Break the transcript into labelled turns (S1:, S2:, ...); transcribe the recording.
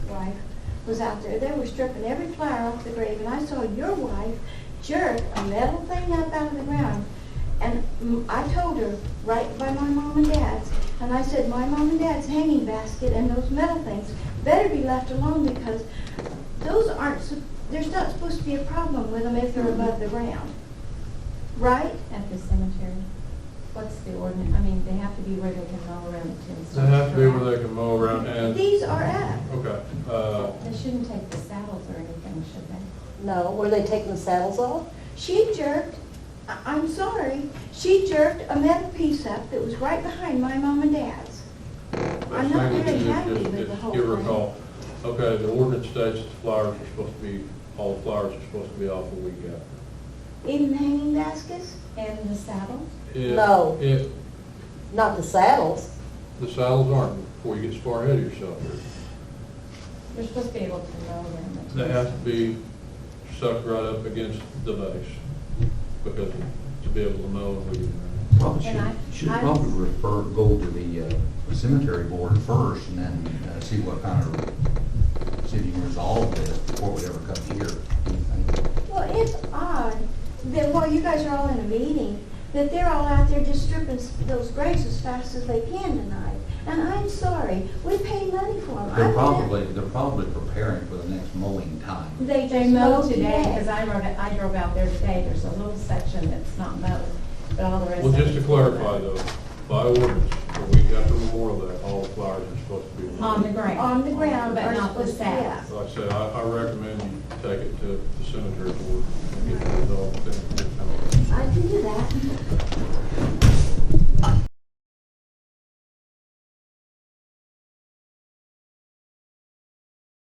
S1: wife was out there, they were stripping every flower off the grave, and I saw your wife jerk a metal thing up out of the ground. And mm, I told her, right by my mom and dad's, and I said, my mom and dad's hanging basket and those metal things better be left alone because those aren't, sup- there's not supposed to be a problem with them if they're above the ground. Right?
S2: at the cemetery? What's the ordinance, I mean, they have to be where they can mow around the tin
S3: They have to be where they can mow around and,
S1: These are up.
S3: okay, uh,
S2: They shouldn't take the saddles or anything, should they?
S4: No, were they taking the saddles off?
S1: She jerked, I- I'm sorry, she jerked a metal piece up that was right behind my mom and dad's.
S3: that's
S1: I'm not very
S3: maybe
S1: happy
S3: just,
S1: with the
S3: just
S1: whole
S3: give her a
S1: thing.
S3: call. Okay, the ordinance states that the flowers are supposed to be, all the flowers are supposed to be off the week after.
S1: Even hanging baskets?
S2: And the saddle?
S3: If-
S4: No.
S3: If,
S4: Not the saddles.
S3: the saddles aren't, before you get as far ahead of yourself.
S2: They're supposed to be able to mow around the tin.
S3: They have to be sucked right up against the base, because to be able to mow and weed around.
S5: Probably
S2: And
S5: should,
S2: I-
S5: should
S2: I-
S5: probably refer, go to the uh, cemetery board first and then uh, see what kind of, see if you can resolve it before it ever comes here.
S1: Well, it's odd that while you guys are all in a meeting, that they're all out there just stripping s- those graves as fast as they can tonight. And I'm sorry, we paid money for them.
S5: They're probably, they're probably preparing for the next mowing time.
S1: They
S2: They
S1: just
S2: mow
S1: mowed
S2: today,
S1: today.
S2: because I rode, it- I drove out there today, there's a little section that's not mowed, but all the rest.
S3: Well,
S2: of
S3: just to
S2: it's
S3: clarify
S2: mowed.
S3: though, by ordinance, the week after Memorial Day, all the flowers are supposed to be. mowed.
S2: On the ground.
S1: On the ground,
S2: But
S1: are
S2: not the
S1: supposed to be
S2: saddles.
S1: up.
S3: Like I said, I, I recommend you take it to the cemetery board and get the adult thing.